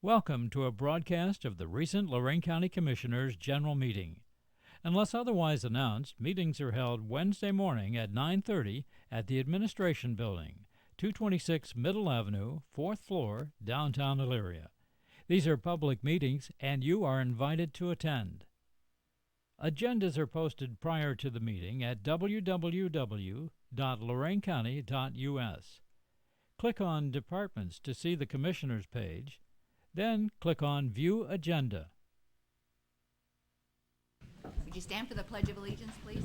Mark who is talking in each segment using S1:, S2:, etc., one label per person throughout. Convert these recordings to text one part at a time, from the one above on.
S1: Welcome to a broadcast of the recent Lorraine County Commissioners' General Meeting. Unless otherwise announced, meetings are held Wednesday morning at 9:30 at the Administration Building, 226 Middle Avenue, 4th floor, downtown Elyria. These are public meetings and you are invited to attend. Agendas are posted prior to the meeting at www.loraincounty.us. Click on Departments to see the Commissioners page, then click on View Agenda.
S2: Would you stand for the Pledge of Allegiance, please?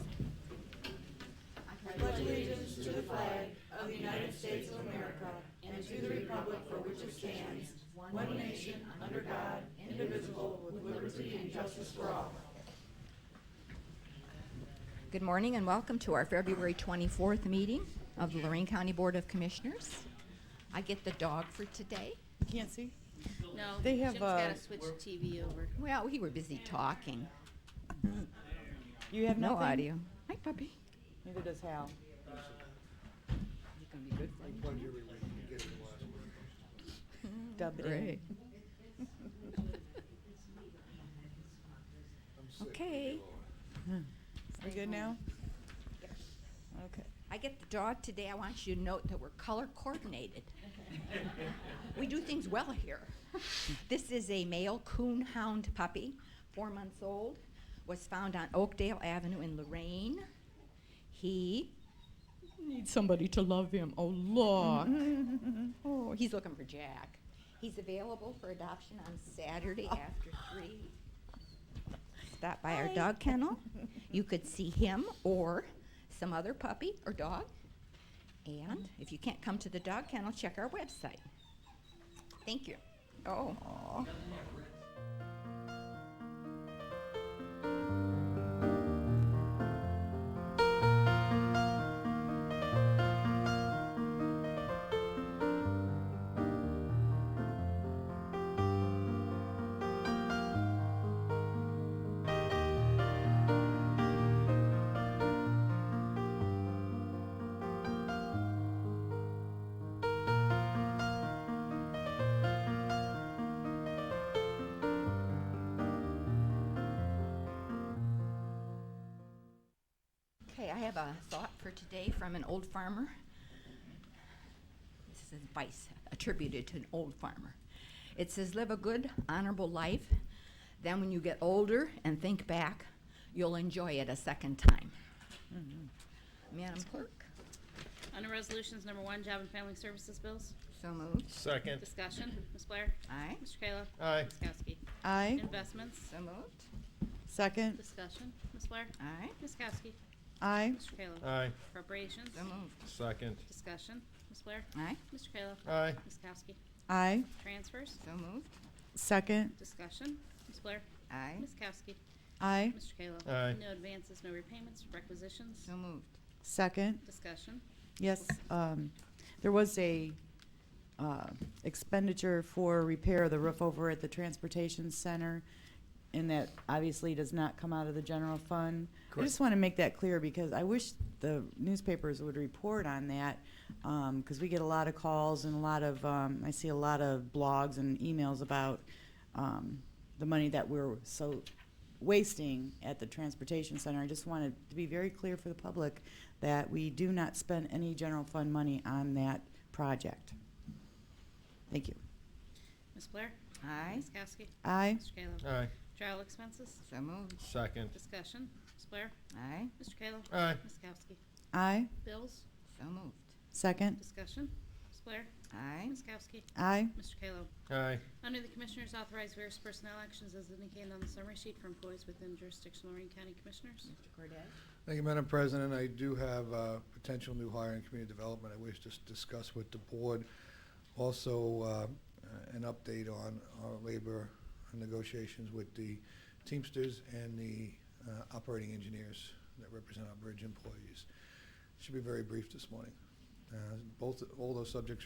S2: Good morning and welcome to our February 24th meeting of the Lorraine County Board of Commissioners. I get the dog for today.
S3: Can't see.
S4: No,
S3: They have,
S4: Jim's gotta
S3: uh,
S4: switch TV over.
S2: Well, we were busy talking.
S3: You have
S2: No
S3: nothing?
S2: audio. Hi, puppy.
S3: Neither does Hal.
S2: You're gonna be good for you.
S3: Dub it in.
S2: Great. Okay.
S3: We good now? Okay.
S2: I get the dog today. I want you to note that we're color coordinated. we do things well here. This is a male coon hound puppy, four months old, was found on Oakdale Avenue in Lorraine. He needs somebody to love him. Oh, look. oh, he's looking for Jack. He's available for adoption on Saturday after 3. Stop by our dog kennel. You could see him or some other puppy or dog. And if you can't come to the dog kennel, check our website. Thank you. Oh. Okay, I have a thought for today from an old farmer. This is advice attributed to an old farmer. It says, Live a good, honorable life. Then, when you get older and think back, you'll enjoy it a second time. Madam Clerk,
S4: Under Resolutions Number One, Job and Family Services Bills.
S2: so moved.
S5: Second.
S4: Discussion, Ms. Blair.
S2: Aye,
S4: Mr. Kayla.
S5: Aye.
S4: Ms. Kowski.
S3: Aye.
S4: Investments.
S2: so moved.
S3: Second.
S4: Discussion, Ms. Blair.
S2: Aye,
S4: Ms. Kowski.
S3: Aye.
S4: Mr. Kayla.
S5: Aye.
S4: Appropriations.
S2: so moved.
S5: Second.
S4: Discussion, Ms. Blair.
S2: Aye,
S4: Mr. Kayla.
S5: Aye.
S4: Ms. Kowski.
S3: Aye.
S4: Transfers.
S2: so moved.
S3: Second.
S4: Discussion, Ms. Blair.
S2: Aye,
S4: Ms. Kowski.
S3: Aye.
S4: Mr. Kayla.
S5: Aye.
S4: No advances, no repayments, requisitions.
S2: so moved.
S3: Second.
S4: Discussion,
S3: Yes, um, there was a, uh, expenditure for repair of the roof over at the transportation center. And that obviously does not come out of the general fund. I just want to make that clear because I wish the newspapers would report on that. Um, cause we get a lot of calls and a lot of, um, I see a lot of blogs and emails about, um, the money that we're so wasting at the transportation center. I just wanted to be very clear for the public that we do not spend any general fund money on that project. Thank you.
S4: Ms. Blair.
S2: Aye,
S4: Ms. Kowski.
S3: Aye.
S4: Mr. Kayla.
S5: Aye.
S4: Trial expenses.
S2: so moved.
S5: Second.
S4: Discussion, Ms. Blair.
S2: Aye,
S4: Mr. Kayla.
S5: Aye.
S4: Ms. Kowski.
S3: Aye.
S4: Bills,
S2: so moved.
S3: Second.
S4: discussion, Ms. Blair,
S2: Aye,
S4: Ms. Kowski,
S3: Aye.
S4: Mr. Kayla.
S5: Aye.
S4: Under the Commissioners, authorize various personnel actions as indicated on the summary sheet for employees within jurisdiction of Lorraine County Commissioners.
S2: Mr. Cordez?
S6: Thank you, Madam President. I do have uh, potential new hire in community development I wish to s- discuss with the board. Also, uh, an update on our labor negotiations with the Teamsters and the uh, operating engineers that represent our bridge employees. Should be very brief this morning. Uh, Both, all those subjects